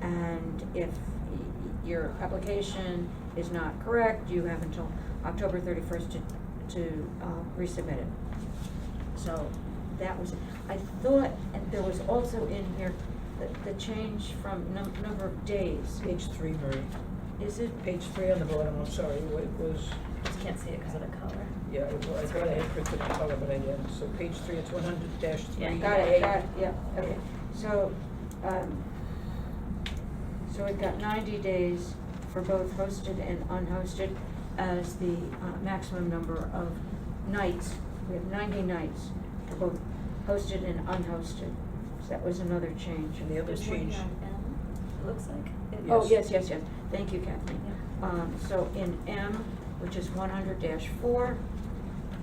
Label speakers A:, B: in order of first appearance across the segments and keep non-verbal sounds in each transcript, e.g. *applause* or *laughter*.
A: And if y- your application is not correct, you have until October thirty-first to, to, uh, resubmit it. So that was, I thought, and there was also in here, the, the change from num- number of days.
B: Page three, Mary,
A: Is it,
B: page three on the bottom, I'm sorry, it was,
C: Just can't see it because of the color.
B: yeah, it was, I thought I had printed the color, but I didn't, so page three, it's one hundred dash three.
C: Yeah,
A: got it, got it, yeah, okay. So, um, so we've got ninety days for both hosted and unhosted as the uh, maximum number of nights. We have ninety nights for both hosted and unhosted. So that was another change.
B: And the other
C: There's one
B: change,
C: here on M, It looks like. It-
A: Oh, yes,
B: Yes.
A: yes, yes, thank you, Kathleen. Um, so in M, which is one hundred four,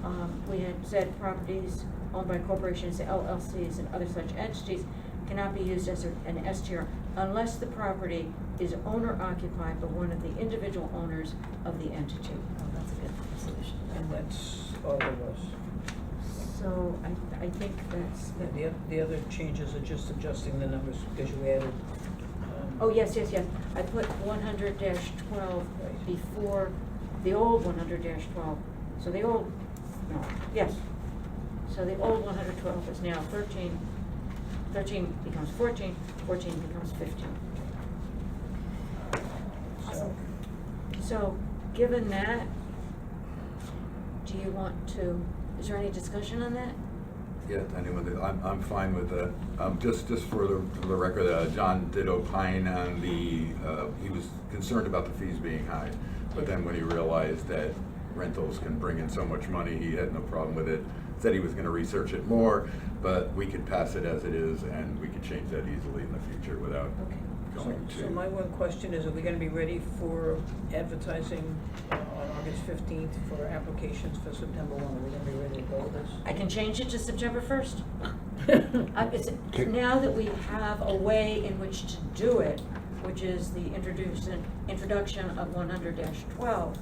A: um, we had said properties owned by corporations, LLCs, and other such entities cannot be used as a- an STR unless the property is owner occupied by one of the individual owners of the entity.
C: Oh, that's a good solution.
B: and that's all it was.
A: So I, I think that's,
B: And the, oth- the other changes are just adjusting the numbers, because you added, um.
A: oh, yes, yes, yes, I put one hundred twelve
B: Right.
A: before the old one hundred twelve, so the old, no, yes. So the old one hundred twelve is now thirteen, thirteen becomes fourteen, fourteen becomes fifteen.
B: So,
A: So, given that, do you want to, is there any discussion on that?
D: Yeah, anyway, I'm, I'm fine with that. Um, just, just for the, for the record, uh, John did opine on the, uh, he was concerned about the fees being high. But then when he realized that rentals can bring in so much money, he had no problem with it. Said he was gonna research it more, but we could pass it as it is and we could change that easily in the future without
A: Okay.
D: going to.
B: so my one question is, are we gonna be ready for advertising uh, on August fifteenth for applications for September one? Are we gonna be ready to go with this?
A: I can change it to September
B: *laughs*
A: first. Uh, it's, now that we have a way in which to do it, which is the introduction, introduction of one hundred twelve,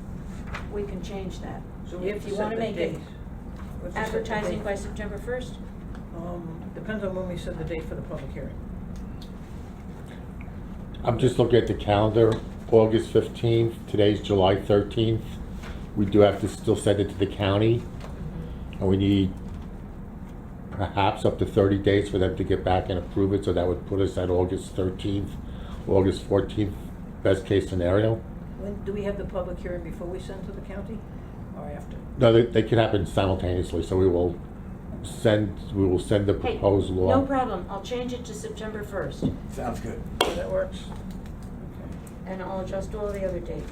A: we can change that.
B: So we have
A: If
B: to
A: you
B: set
A: wanna
B: the
A: make it
B: date. We have to set the
A: advertising
B: date.
A: by September first,
B: Um, depends on when we set the date for the public hearing.
E: I'm just looking at the calendar, August 15th, today's July 13th. We do have to still send it to the county, and we need perhaps up to 30 days for them to get back and approve it, so that would put us at August 13th, August 14th, best-case scenario.
B: When, do we have the public hearing before we send to the county or after?
E: No, they, they can happen simultaneously, so we will send, we will send the
A: hey,
E: proposed law.
A: no problem, I'll change it to September first,
D: Sounds good.
B: So That works?
A: and I'll adjust all the other dates.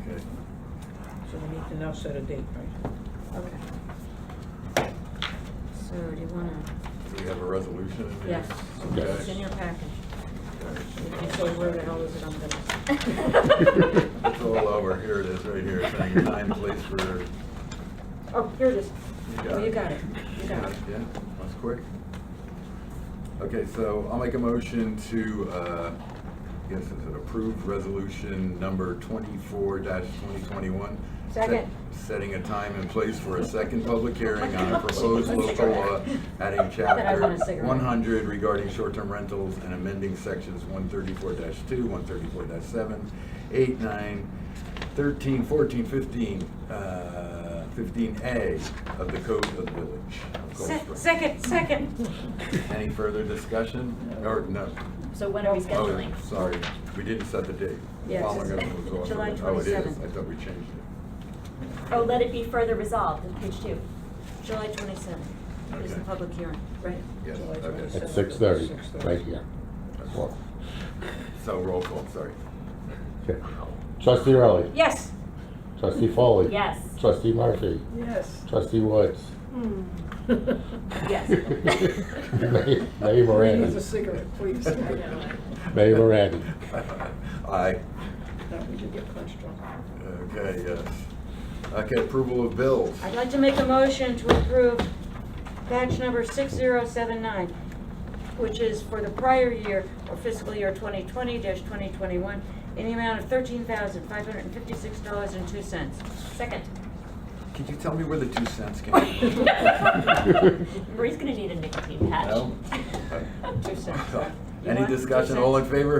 D: Okay.
B: Okay. So we need to now set a date, right?
A: Okay. So, do you wanna,
D: Do we have a resolution? in here?
A: yes,
D: Okay.
A: it's in your package, if you so where the hell is it, I'm gonna.
D: It's *laughs* all over. Here it is, right here, saying your time, place for
A: Oh, here it is.
D: got
A: Oh, you
D: it.
A: got it. You got it.
D: Yeah, that's quick. Okay, so I'll make a motion to, uh, I guess is it approved resolution number twenty-four twenty twenty-one?
A: Second.
D: Setting a time and place for a second public hearing on a
A: *laughs*
D: proposed local law adding
A: That I want a
D: chapter
A: cigarette.
D: one hundred regarding short-term rentals and amending sections one thirty-four two, one thirty-four seven, eight, nine, 13, 14, 15, uh, 15A of the Code of the Village. of Cold
A: Se-
D: Spring.
A: Second, second.
D: Any further discussion? Or no?
C: So when are we
D: Oh,
C: *laughs* scheduling?
D: Sorry, we didn't set the date.
A: Yes,
D: Oh, my
A: it's-
D: God, it was off.
A: July
D: Oh, it
A: 27th.
D: is, I thought we changed it.
C: Oh, let it be further resolved on page two.
A: July twenty-seventh is the
D: Okay.
A: public hearing, right?
D: Yes,
B: July
D: okay.
E: At
B: 27th.
E: 6:30, right here. Well,
D: So roll call, sorry.
E: okay. Trustee Early?
A: Yes.
E: Trustee Foley?
C: Yes.
E: Trustee Murphy?
B: Yes.
E: Trustee Woods?
A: Hmm.
B: *laughs*
C: Yes.
E: *laughs* May May
B: Please, a
E: Moran.
B: cigarette, please.
E: Mayor Moran.
D: *laughs* Aye.
B: Now we can get punched on.
D: Okay, yes. Okay, approval of bills.
A: I'd like to make a motion to approve batch number 6079, which is for the prior year or fiscal year 2020-2021, in the amount of $13,556.02.
C: Second.
D: Could you tell me where the two cents came from?
A: *laughs*
C: Marie's gonna need a nicotine patch.
D: No?
C: *laughs*
A: Two cents. You
D: Any
A: want two
D: discussion, all in
A: cents?
D: favor?